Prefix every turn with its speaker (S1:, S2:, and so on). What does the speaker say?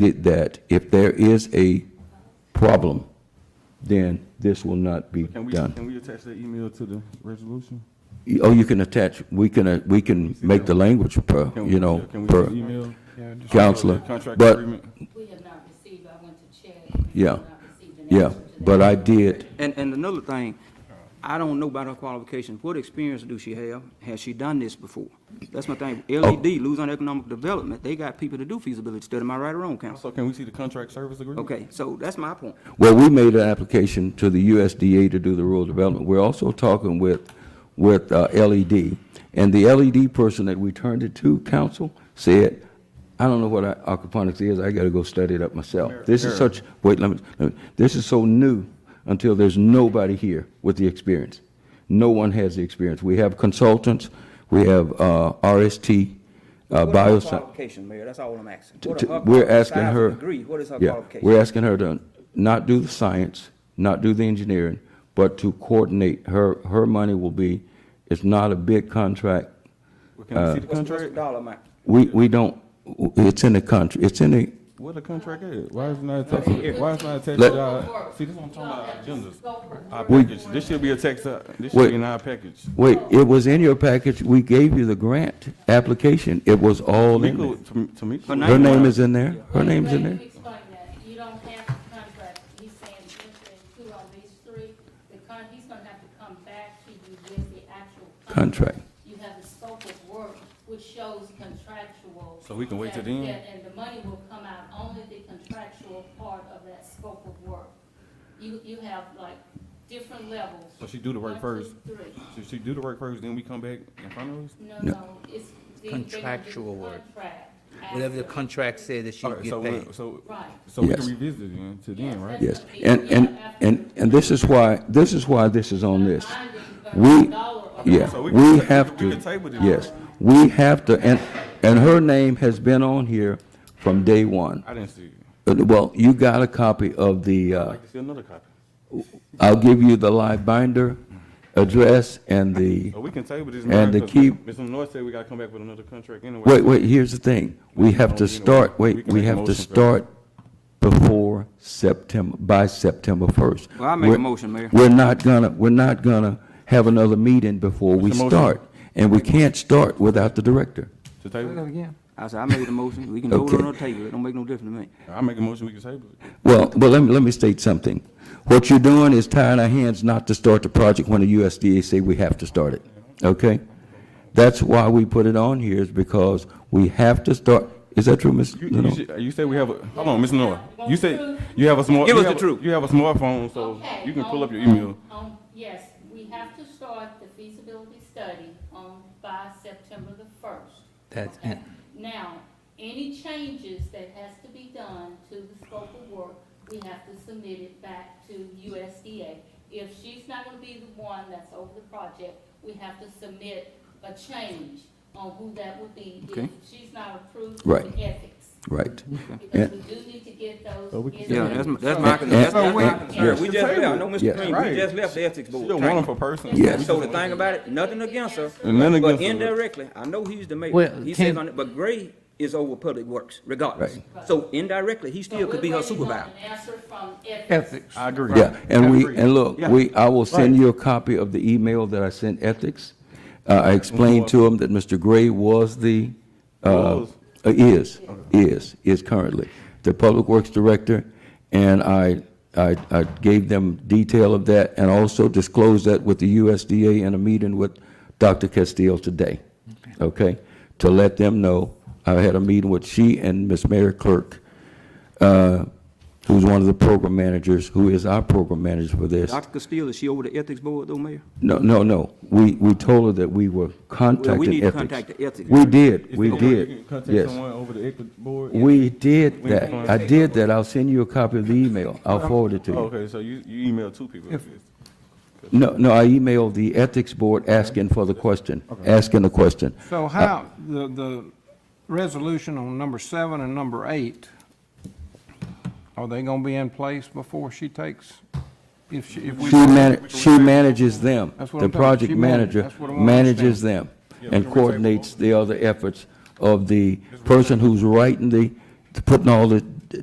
S1: stated that if there is a problem, then this will not be
S2: Can we,
S1: done.
S2: can we attach that email to the resolution?
S1: Oh, you can attach, we can, uh, we can make the language per,
S2: Can we-
S1: you know,
S2: Can we
S1: per
S2: just email?
S1: counselor.
S2: The Contract
S1: But,
S2: agreement?
S3: We have not received, I went to check.
S1: Yeah. yeah, but I did,
S4: And, and another thing, I don't know about her qualifications. What experience do she have? Has she done this before? That's my thing.
S1: Oh.
S4: E LED, Louisiana Economic Development, they got people to do feasibility study. Am I right or wrong, council?
S2: So can we see the contract service agreement?
S4: Okay, so that's my point.
S1: well, we made an application to the USDA to do the rural development. We're also talking with, with uh, LED. And the LED person that we turned it to, council, said, I don't know what aquaponics is, I gotta go study it up myself. This is such, wait, let me, let me- this is so new until there's nobody here with the experience. No one has the experience. We have consultants, we have uh, RST, uh,
S4: What are her
S1: bioscience.
S4: qualifications, Mayor? That's all I'm asking.
S1: to-
S4: What
S1: to-
S4: are her
S1: We're
S4: qual-
S1: asking
S4: besides
S1: her.
S4: the degree, what is her
S1: yeah,
S4: qualification?
S1: We're asking her to not do the science, not do the engineering, but to coordinate. Her, her money will be, it's not a big contract.
S2: Well, Can
S1: Uh,
S2: we see the
S4: What's what's the
S2: contract?
S4: dollar amount?
S1: We, we don't, it's in the country, it's in the,
S2: What the contract is? Why is it not attached, to- why is it not attached
S1: Let-
S2: to our, see, this is what I'm talking about, agendas. Our
S1: We-
S2: package, this should be attached, to- this
S1: Wait.
S2: should be in our package.
S1: wait, it was in your package. We gave you the grant application. It was all in
S2: Tamika,
S1: there.
S2: Tam- Tamika.
S4: Her
S1: Her name is in there. Her name's in there.
S3: Explain that, you don't have the contract, he's saying enter into on these three, the con, he's gonna have to come back to you with the actual.
S1: Contract.
S3: You have the scope of work, which shows contractual.
S2: So we can wait till
S3: that-
S2: then?
S3: that- And the money will come out only the contractual part of that scope of work. You, you have like different levels.
S2: So she do the work
S3: One, two,
S2: first,
S3: three.
S2: so she do the work first, then we come back in front of us?
S3: No, no, it's. the- they gonna do the
S5: Contractual work.
S3: contract
S5: Whatever the
S3: after.
S5: contract said that she
S2: All
S5: would
S2: right, so,
S5: get paid.
S2: when- so,
S3: Right.
S2: so we
S1: Yes.
S2: can revisit it then, to then, right?
S1: Yes. And, and, and, and this is why, this is why this is on this.
S3: Mine didn't burn
S1: We-
S3: a dollar of
S1: Yeah,
S2: So we
S1: we
S2: can-
S1: have
S2: we can
S1: to,
S2: table this.
S1: yes, we have to, and, and her name has been on here from day one.
S2: I didn't see it.
S1: Uh, Well, you got a copy of the,
S2: I'd
S1: uh,
S2: like to see another copy.
S1: I'll give you the live binder address and the,
S2: So we can table this.
S1: And to
S2: now, 'cause
S1: keep-
S2: Mr. North said we gotta come back with another contract anyway.
S1: wait, wait, here's the thing. We have to start,
S2: We
S1: wait,
S2: can
S1: we
S2: make a
S1: have to
S2: motion for-
S1: start before September, by September first.
S4: Well, I make a motion, Mayor.
S1: We're not gonna, we're not gonna have another meeting before we
S2: It's a motion.
S1: start. And we can't start without the director.
S2: To table, it?
S4: I said, I made the motion. We can vote
S1: Okay.
S4: on her table. It don't make no difference to me.
S2: I make a motion, we can table it.
S1: Well, well, let me, let me state something. What you're doing is tying our hands not to start the project when the USDA say we have to start it, okay? That's why we put it on here, is because we have to start, is that true, Ms.
S2: You,
S1: Lenore?
S2: you, should, you say we have a, hold on, Ms. Noah. You say, you have a smart.
S4: Give
S2: you
S4: us the
S2: have a-
S4: truth.
S2: You have a smartphone, so
S3: Okay,
S2: you can pull
S3: on-
S2: up your email.
S3: on- on- Yes, we have to start the feasibility study on, by September the first.
S5: That's
S3: Okay.
S5: it.
S3: Now, any changes that has to be done to the scope of work, we have to submit it back to USDA. If she's not gonna be the one that's over the project, we have to submit a change on who that would be
S4: Okay.
S3: if she's not approved
S1: Right.
S3: for ethics.
S1: Right.
S3: Because we do need to get those. in
S4: Yeah,
S3: the-
S4: that's, my- that's my,
S1: And-
S4: that's that's
S1: and-
S4: my
S1: and-
S4: concern. We just left, I know Mr.
S1: Yes.
S4: King, we
S2: Right.
S4: just left the ethics
S2: She
S4: board.
S2: a wonderful person.
S1: Yes.
S4: So the thing about it, nothing against her.
S2: And then against
S4: But
S2: her.
S4: indirectly, I know he's the mayor,
S5: Well,
S4: he says
S5: can-
S4: on it, but Gray is over public works regardless.
S3: Right.
S4: So indirectly, he still could be her
S3: So we're waiting on
S4: supervisor.
S3: An answer from ethics.
S5: Ethics.
S2: I agree.
S1: Yeah, and we,
S2: Agree.
S1: and look,
S2: Yeah.
S1: we, I will send you a copy of the email that I sent Ethics. Uh, I explained to him that Mr. Gray was the, uh,
S2: Was.
S1: uh, is, is, is currently the Public Works Director, and I, I, I gave them detail of that and also disclosed that with the USDA in a meeting with Dr. Castile today, okay? To let them know, I had a meeting with she and Miss Mary Clerk, uh, who's one of the program managers, who is our program manager for this.
S4: Dr. Castillo, is she over the ethics board though, Mayor?
S1: No, no, no. We, we told her that we were contacting ethics.
S4: need to contact the ethics.
S1: We did,
S2: If
S1: we
S2: they want, you
S1: did,
S2: can Contact
S1: yes.
S2: someone over the ethics board.
S1: We did
S2: We
S1: that.
S2: can-
S1: I did that. I'll send you a copy of the email. I'll forward it to you.
S2: Okay, so you, you emailed two people.
S1: No, no, I emailed the ethics board asking for the question, asking the question.
S6: So how, the, the resolution on number seven and number eight, are they gonna be in place before she takes, if she, if we?
S1: She man, she manages them.
S6: That's what
S1: The
S6: I'm talking about.
S1: project
S6: She manage-
S1: manager
S6: that's what I wanna
S1: manages them
S2: we
S1: and
S2: can
S1: coordinates the other efforts of the person who's writing the, putting all the